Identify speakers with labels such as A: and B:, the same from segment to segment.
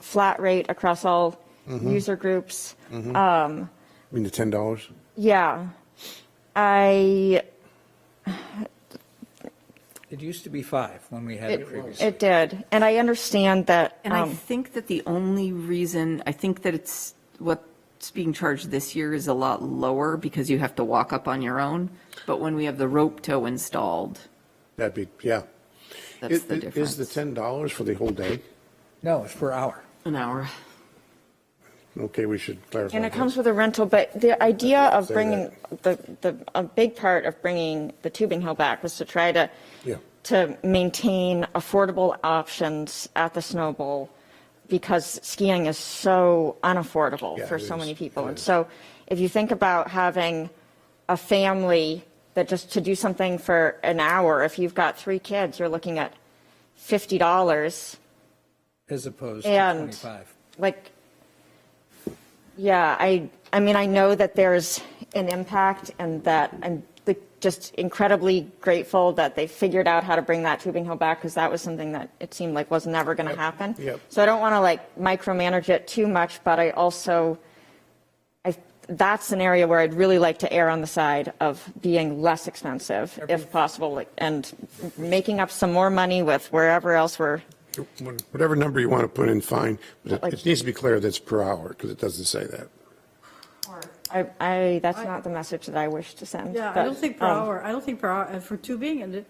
A: flat rate across all
B: Mm-hmm.
A: user groups.
B: I mean, the ten dollars?
A: Yeah. I,
C: It used to be five when we had it previously.
A: it did. And I understand that,
D: And I
A: um,
D: think that the only reason, I think that it's, what's being charged this year is a lot lower because you have to walk up on your own. But when we have the rope tow installed,
B: That'd be, yeah.
D: that's
B: It-
D: the
B: it- Is the
D: difference.
B: ten dollars for the whole day?
C: No, it's per hour.
D: An hour.
B: Okay, we should clarify.
A: and it
B: that.
A: comes with a rental, but the idea of
B: Say
A: bringing, the, the, a big part of bringing the tubing hill back was to try to,
B: Yeah.
A: to maintain affordable options at the Snow Bowl because skiing is so unaffordable
B: Yeah,
A: for
B: it
A: so
B: is.
A: many people.
B: It
A: And
B: is.
A: so if you think about having a family that just to do something for an hour, if you've got three kids, you're looking at $50.
C: As opposed to
A: And-
C: 25.
A: Like, yeah, I, I mean, I know that there's an impact and that I'm like, just incredibly grateful that they figured out how to bring that tubing hill back because that was something that it seemed like was never going to happen.
B: yep.
A: So I don't want to like micromanage it too much, but I also, I, that's an area where I'd really like to err on the side of being less expensive if possible like, and making up some more money with wherever else we're
B: Whatever number you want to put in, fine, but it-
A: Like-
B: it needs to be clear that's per hour, because it doesn't say that.
A: I, I, that's not the message that I wish to send.
E: Yeah, I
A: but,
E: don't think per
A: um,
E: hour, I don't think per hour, uh, for tubing, and it-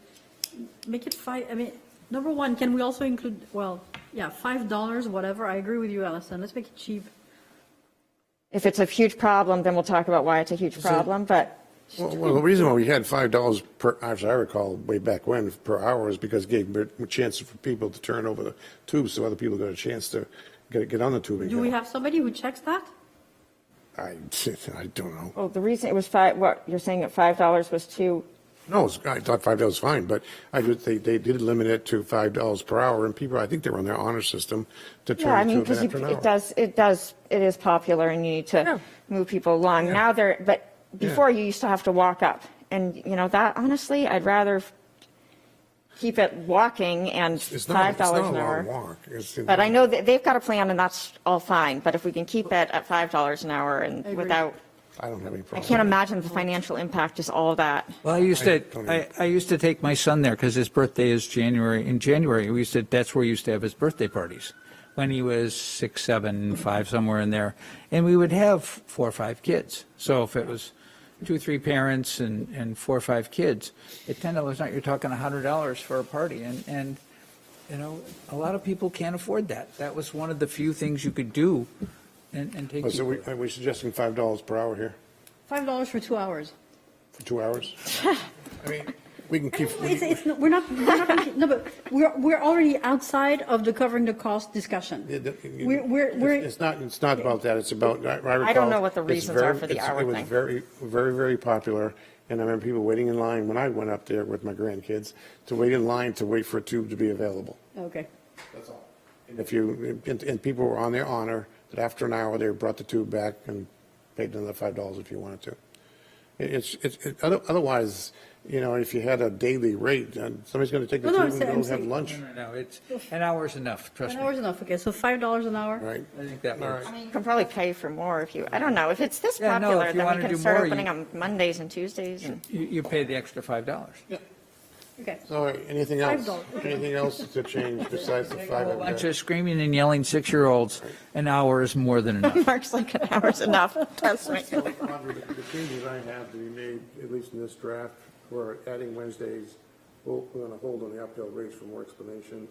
E: make it five, I mean, number one, can we also include, well, yeah, five dollars, whatever, I agree with you, Allison, let's make it cheap.
A: If it's a huge problem, then we'll talk about why it's a huge problem, but,
B: Well, well, the reason why we had five dollars per, as I recall, way back when, per hour is because it gave bit- a chance for people to turn over the tubes, so other people got a chance to get, get on the tubing.
E: Do we have somebody who checks that?
B: I, I don't know.
A: well, the reason it was five, what, you're saying that five dollars was too,
B: No, it's- I thought five dollars was fine, but I just, they, they did limit it to five dollars per hour, and people, I think they were on their honor system to
A: yeah, I
B: turn
A: mean,
B: it to
A: because
B: an after an
A: it
B: hour.
A: does, it does, it is popular and you need to move people along. Now they're, but before you used to have to walk up. And, you know, that honestly, I'd rather keep it walking and
B: It's not,
A: five
B: it's not
A: dollars
B: a
A: an
B: long
A: hour.
B: walk. It's-
A: But I know that they've got a plan and that's all fine, but if we can keep it at five dollars an hour and without
B: I don't have any
A: I
B: problem.
A: can't imagine the financial impact is all that.
C: Well, I used to,
B: don't
C: I,
B: even-
C: I used to take my son there because his birthday is January, in January, we used to, that's where he used to have his birthday parties. When he was six, seven, five, somewhere in there. And we would have four or five kids. So if it was two, three parents and, and four or five kids, at ten dollars not you're talking a hundred dollars for a party. And, and, you know, a lot of people can't afford that. That was one of the few things you could do and, and take
B: Oh, So
C: people.
B: we, are we suggesting five dollars per hour here
E: Five dollars for two hours.
B: for two hours? I mean, we can keep,
E: It's, it's, no- we're not, we're not, gonna- no, but we're, we're already outside of the covering the cost discussion.
B: Yeah, the- you-
E: We're, we're,
B: it's-
E: we're.
B: It's not, it's not about that, it's about, I I recall.
A: know what the
B: it's
A: reasons are
B: very-
A: for the
B: it's-
A: hour
B: It was
A: thing.
B: very, very, very popular, and I remember people waiting in line when I went up there with my grandkids, to wait in line to wait for a tube to be available.
E: Okay.
B: And if you, and, and people were on their honor, that after an hour, they brought the tube back and paid another five dollars if you wanted to. It- It's, it's, it- other- otherwise, you know, if you had a daily rate, then somebody's going to take the tube
E: No, no, I'm
B: and
E: saying- I'm
B: go have
E: saying-
B: lunch,
C: No, no, no, it's, an hour's enough, trust
E: An
C: me.
E: hour's enough, okay, so five dollars an hour?
B: right?
C: I think that
B: All
C: works.
B: right.
A: You can probably pay for more if you, I don't know, if it's this
C: Yeah, no, if
A: popular,
C: you
A: then
C: wanna
A: we can
C: do
A: start
C: more, you-
A: opening on Mondays and Tuesdays and.
C: You, you pay the extra five dollars.
E: Okay.
B: So all right, anything else?
E: dollars.
B: Anything else to change besides the
C: A
B: five?
C: whole
B: that we
C: bunch
B: got?
C: of screaming and yelling six-year-olds, an hour is more than enough.
A: Mark's like, an hour's enough, trust me.
B: Probably The the changes I have to be made, at least in this draft, were adding Wednesdays, we're going to hold on the uphill race for more explanation.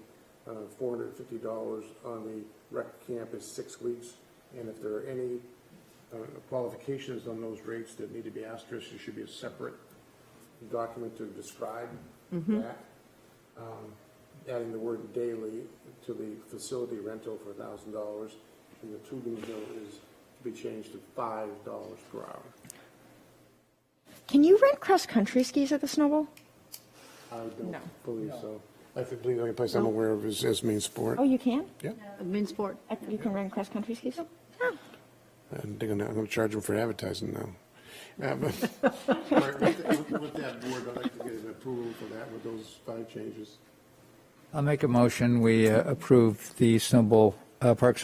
B: Uh, $450 on the rec camp is six weeks, and if there are any uh, qualifications on those rates that need to be asterisked, it should be a separate document to describe that. Um, Adding the word daily to the facility rental for $1,000, and the tubing bill is to be changed to $5 per hour.
A: Can you rent cross-country skis at the Snow Bowl?
B: I
A: No.
B: don't believe so. I think the only place I'm aware of is, is main sport.
A: Oh, you can?
B: Yeah,
E: Admin sport.
A: I- You can rent cross-country skis? Oh.
B: I'm thinking I'm going to charge them for advertising now. Uh, but- All right, With that with that board, I'd like to get an approval for that with those five changes.
C: I'll make a motion, we uh, approve the Snowball Parks and